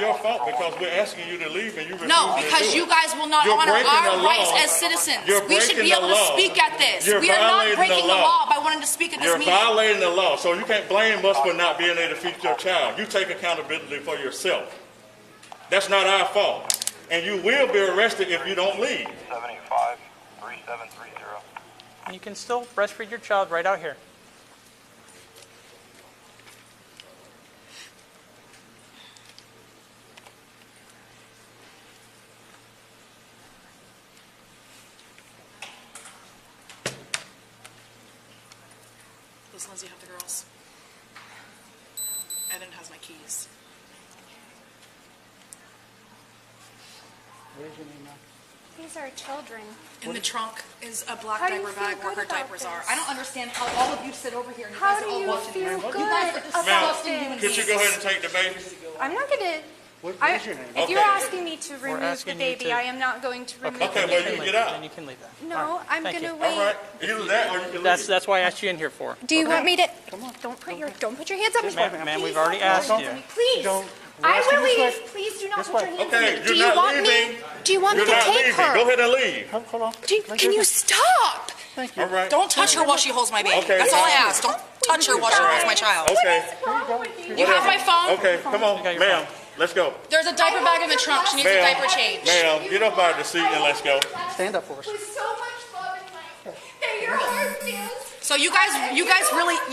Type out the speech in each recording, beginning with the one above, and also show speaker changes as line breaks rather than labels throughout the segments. Your fault because we're asking you to leave and you refuse
No,
to
because
do
you
it.
guys will not
You're
honor
breaking the
our
law.
rights as citizens.
You're
We should
breaking
be
the
able to
law.
speak at this.
You're
We are not
violating the
breaking the law
law.
by wanting to speak at this
You're
meeting.
violating the law, so you can't blame us for not being able to feed your child. You take accountability for yourself. That's not our fault. And you will be arrested if you don't leave.
785 3730.
You can still breastfeed your child right out here.
Does Lindsay have the girls? Evan has my keys.
These are children.
In the trunk is a black
How do you
diaper
feel
bag where her
good about
diapers are.
this?
I don't understand how all of you sit over here and you
How
guys
do
are all
you
watching
feel
here.
good
You guys are
about
disgusting human
this?
Could you go ahead and take the baby?
I'm not gonna.
What-
I-
what's your name?
If you're
Okay.
asking me to remove the
asking you
baby,
to-
I am not going to remove
Okay,
the
well,
baby.
you
Then
get out.
Then you can leave that. All
No,
right,
I'm
thank you.
gonna
All right,
wait.
either that or you can leave.
That's, that's why I asked you in here for.
Do you want me to? Don't put your, don't put your hands on me.
Ma'am, ma'am, we've already asked
Don't-
you.
Please,
Don't- we're
I
asking
will
this way.
leave. Please do not
This
put
way.
your hands on
Okay,
me.
you're
Do you
not
want me?
leaving.
Do you want me
You're
to
not
take
leaving. Go
her?
ahead and leave.
Hold hold on.
Do you- Can you stop?
Thank you.
All right.
Don't touch her while she holds my baby.
Okay.
That's all I ask. Don't touch her while she holds my child.
What
Okay.
is wrong with you?
You have my phone?
Okay, come on,
Okay, you're
ma'am, let's go.
There's a diaper bag in the trunk. She needs a
Ma'am,
diaper change.
ma'am, get up out of the seat and let's go.
Stand up for us.
With so much love and light that your heart feels.
So you guys, you guys really,
Walk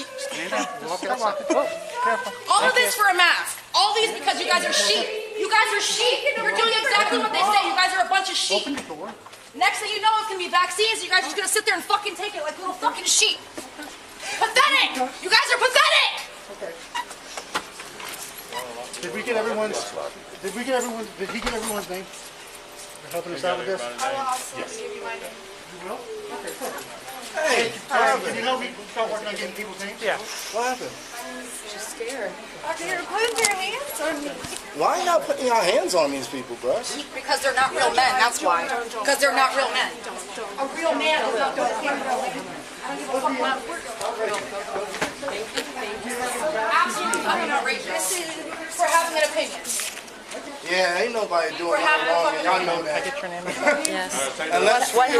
out. Oh, careful.
all of this for a mask. All these because you guys are sheep. You guys are sheep. You're doing exactly what they say. You guys are a bunch of sheep.
Open the door.
Next thing you know, it's gonna be vaccines. You guys are just gonna sit there and fucking take it like little fucking sheep. Pathetic! You guys are pathetic!
Did we get everyone's, did we get everyone, did he get everyone's name? You're helping us out with this?
I will absolutely give you my name.
You will? Okay, perfect. Hey, Kevin, you know we we start working on getting people's names?
Yeah.
What happened?
Okay, you're putting your hands on me.
Why y'all putting y'all hands on these people, bruh?
Because they're not real men, that's why. Because they're not real men. A real man is not gonna be real man. I don't give a fuck about Absolutely fucking outrageous for having an opinion.
Yeah, ain't nobody doing
We're having a
nothing wrong, and
fucking
y'all know that.
Get your name.
Unless
What
free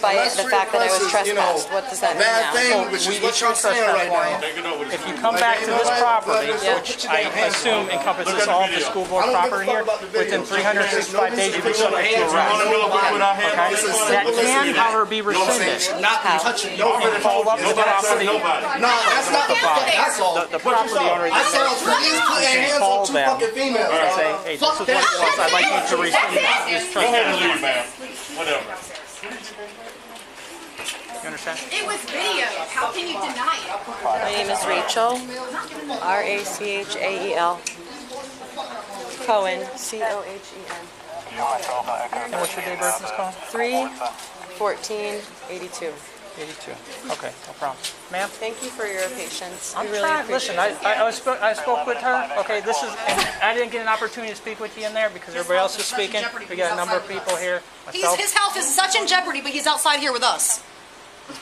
press-
by
unless
the
free
fact that I
press
was
is, you know,
trespassed? What does that mean
Bad
now?
thing, which
we
is what y'all
issued
saying
trespass
right now.
Take it over. to
If you
the-
come back to this property,
Yeah.
which I assume encompasses all the school board
I don't give a
property
fuck
here,
about the video.
within 365 days, you'll be
Put your
subject to
hands
arrest.
on
Wanna know if we put our hands on
Okay?
this one?
That can, however, be rescinded.
Not
How?
touching nobody.
Follow up with the
Nobody touched
property,
nobody.
No, that's not the fact, that's all.
the property owner
I
that
saw police putting hands
Call
on two
them.
fucking females,
can
dog.
say, hey, this is what it was, I'd like you to rescind this
Go ahead
trespass.
and leave, ma'am. Whatever.
You understand?
It was video. How can you deny it?
My name is Rachel, R A C H A E L. Cohen, C O H E N.
And what's your day of birth, Ms. Cole?
3 14 82.
82. Okay, no problem. Ma'am?
Thank you for your patience.
I'm
We really
trying, listen,
appreciate
I,
it.
I, I spoke, I spoke with her, okay, this is, I didn't get an opportunity to speak with you in there because everybody else is speaking. We got a number of people here,
He's,
myself.
his health is such in jeopardy, but he's outside here with us.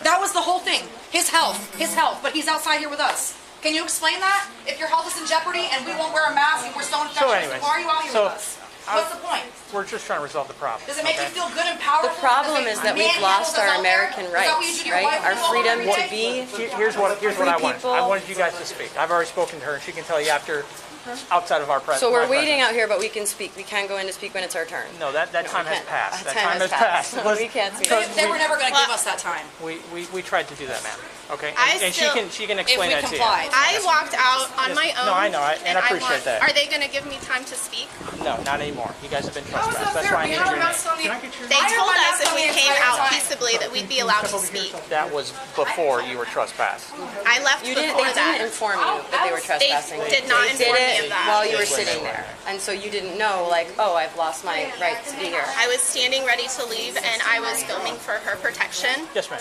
That was the whole thing. His health, his health, but he's outside here with us. Can you explain that? If your health is in jeopardy and we won't wear a mask and we're so infectious,
anyways,
why are you out here
so
with us? What's the point?
We're just trying to resolve the problem.
Does it make
okay?
you feel good and powerful?
The problem
Does
is
it
that we've
manhandle
lost
us
our
out there?
American
Is that what you do
rights,
to your
right?
wife
Our
when you go
freedom
home every
to
day?
be
Here- Here's what, here's what I wanted. I wanted you guys to speak. I've already spoken to her, and she can tell you after,
Mm-hmm.
outside of our pres-
So
my
we're
presence.
waiting out here, but we can speak. We can go in to speak when it's our turn.
No, that, that time has
can't.
passed. That
That
time has passed.
We can't speak.
They, they were never going to give us that time
We, we, we tried to do that, ma'am, okay?
I
And- And she
still-
can, she can
if
explain
we
that to you.
complied.
I walked out on my
No,
own.
I know, I- and I appreciate
want-
that.
Are they going to give me time to speak?
No, not anymore. You guys have been
was
trespassed. That's
that fair?
why I
We
need your
had a
name.
mouse on the-
Mhm.
They
I
told
don't
us
have
if we
the
came
entire
out
time.
peaceably that we'd be allowed to speak.
That was before you were trespassed.
I left
You didn't,
before
they didn't
that.
inform you that they were
They
trespassing.
did not
They
inform
did
me of
it while
that.
you were sitting there. And so you didn't know, like, oh, I've lost my right to be here.
I was standing ready to leave and I was filming for her protection.
Yes, ma'am.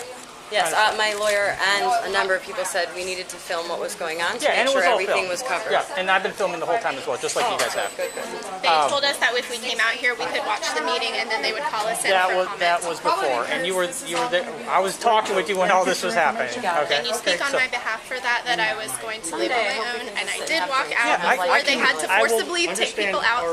Yes, uh, my lawyer and a number of people said we needed to film what was going on to
Yeah, and
make
it
sure
was all
everything
filmed.
was covered. Oh,
Yeah, and I've been filming the whole time as well, just like you guys have.
They
Um,
told us that if we came out here, we could watch the meeting and then they would call us in
That
for
was, that
comments.
was before, and you were, you were there, I was talking with you when all this was happening, okay?
Can you speak
Okay,
on
so-
my behalf for that, that I was going to leave on
Someday, I
my
hope we
own
can
and I
sit
did
and have
walk
drinks.
out
Yeah, I- I
before they
can-
had to
I will
forcibly take
understand
people out
our